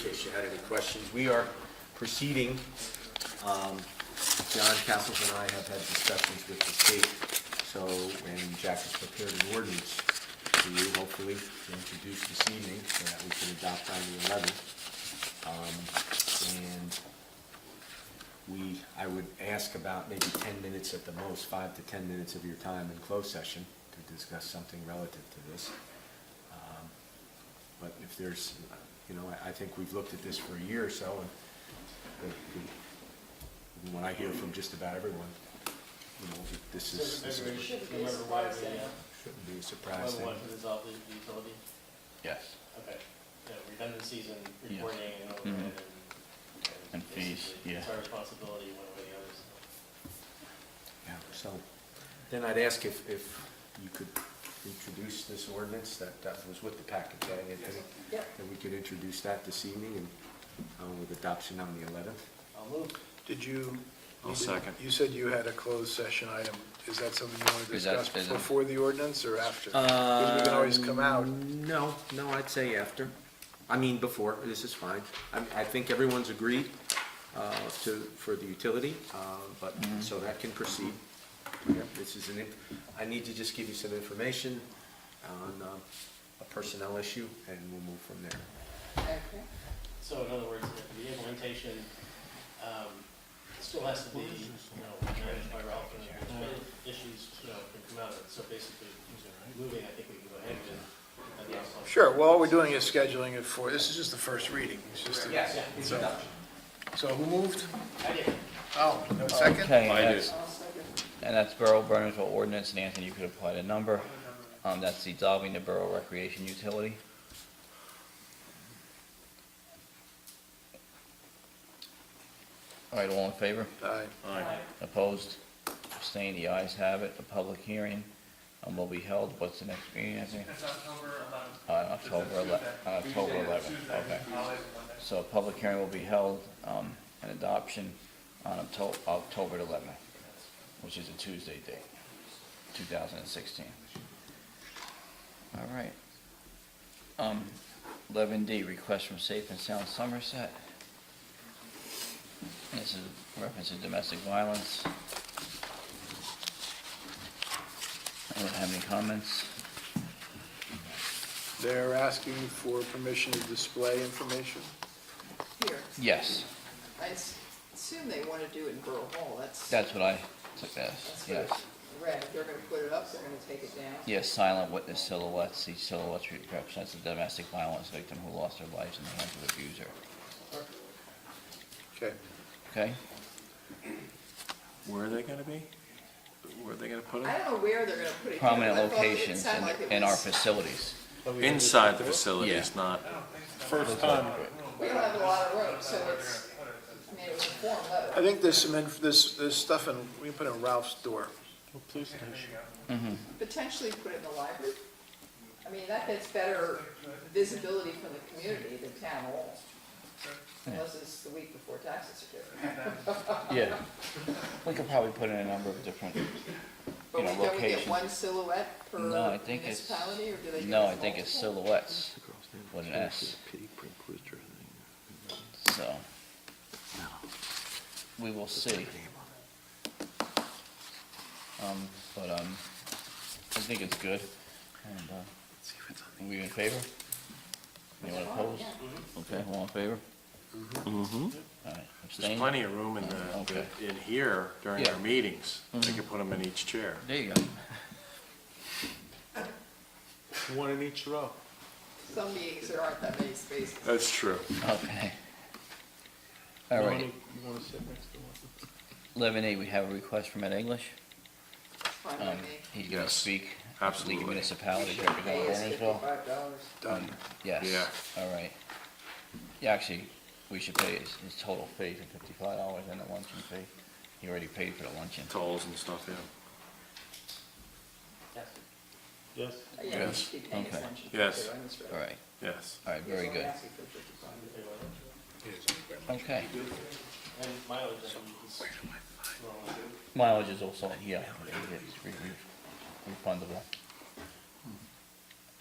case you had any questions. We are proceeding. Um, John Castles and I have had discussions with the state, so, and Jack has prepared an ordinance for you, hopefully, to introduce this evening, so that we can adopt on the eleventh. And we, I would ask about maybe ten minutes at the most, five to ten minutes of your time in closed session to discuss something relative to this. Um, But if there's, you know, I, I think we've looked at this for a year or so, and the- the- from what I hear from just about everyone, you know, this is, this Everybody is- should, no matter what, they, uh, shouldn't be a surprise whether thing. one to dissolve the the utility, Yes. okay, yeah, redundancies and Yeah. Mm-hmm. reporting and overhead and. And fees, basically, It's yeah. our responsibility one way or the other, so. Yeah, so, then I'd ask if, if you could introduce this ordinance that, that was with the packet, that I had, Yep. that we could introduce that this evening and, uh, with adoption on the eleventh. I'll move. Did you? I'll second. You said you had a closed session item. Is that something you want to Is that- Uh, discuss is it- before the ordinance or after? Because we can always come out. No, no, I'd say after. I mean, before, this is fine. I, I think everyone's agreed, uh, to, for the utility, uh, but, so that can proceed. Yeah, This is an, in- I need to just give you some information on, uh, a personnel issue, and we'll move from there. Okay. So in other words, the the implementation, um, still has to be, you know, managed by Ralph and there's been issues, you know, can come out of it, so basically, moving, I think we can go ahead with. it, and that's all. Sure, well, all we're doing is scheduling it for, this is just the first reading. It's just a- Yes, introduction. So who moved? I did. Oh, no second? Okay, that's, I'll second. and that's Borough Burnsville ordinance, and Anthony, you could apply the number. Um, that's dissolving the Borough Recreation Utility. All right, all in favor? Aye. Opposed? Abstained? The ayes have it. The public hearing, um, will be held. What's the next meeting, Anthony? It's October eleventh. On Uh, October ele, on October eleventh, okay. Holiday Monday. So a public hearing will be held, um, and adoption on Octo- October eleventh, which is a Tuesday date, two thousand and sixteen. All right. Um, eleven D, request from Safe and Sound Somerset. This is reference to domestic violence. Anyone have any comments? They're asking for permission to display information. Here, Yes, I s- assume they want to do it in Borough Hall, that's. that's what I took as, that's what yes. I Read, they're going to put it up, they're going to take it down. Yes, silent witness silhouettes. These silhouettes represent the domestic violence victim who lost their lives in the hands of abuser. Okay. Okay? Where are they gonna be? Where are they gonna put I them? don't know where they're going to put it. down, Prominent but I thought it locations sounded in, like it in our was- facilities. Inside the facilities, Yeah. not, First time. We don't have a lot of room, so it's, I mean, it was a form letter. I think there's some, inf- there's, there's stuff in, we can put it in Ralph's door. Police station. mm-hmm. potentially put it in the library. I mean, that gets better visibility from the community than town hall. Unless it's the week before taxes are due. Yeah. We could probably put in a number of different, But know, we don't we get location. one silhouette per no, I think it's, municipality, or do they? give no, us I think it's multiple? silhouettes with an S, so. We will see. Um, but, um, I think it's good. And, uh, are we in favor? Anyone opposed? Okay, Mm-hmm. all in favor? All right, there's abstain? plenty of room in the, Okay. in here during Yeah. Mm-hmm. our meetings. They could put them in each chair. There you go. One in each row. Some meetings, there aren't that many spaces. That's true. Okay. All right, You wanna sit next to one? eleven A, we have a request from Ed English. Fine by Um, me. he's gonna Yes, speak. absolutely. League of Municipalities We should pay representing us Warrensville. $55. Done. Yes, Yeah. all right. Yeah, actually, we should pay his, his total fee to fifty-five dollars and the luncheon fee. He already paid for the luncheon. Tolls and stuff, yeah. Yes. Uh, Yeah, we Yes. should be paying us Okay. luncheon. Yes. too, I misread. All right, Yes. all right, very Yes, I'm good. asking for 55. Okay. And mileage, I think, is. well, Mileage is also, yeah, it is re- re- refundable.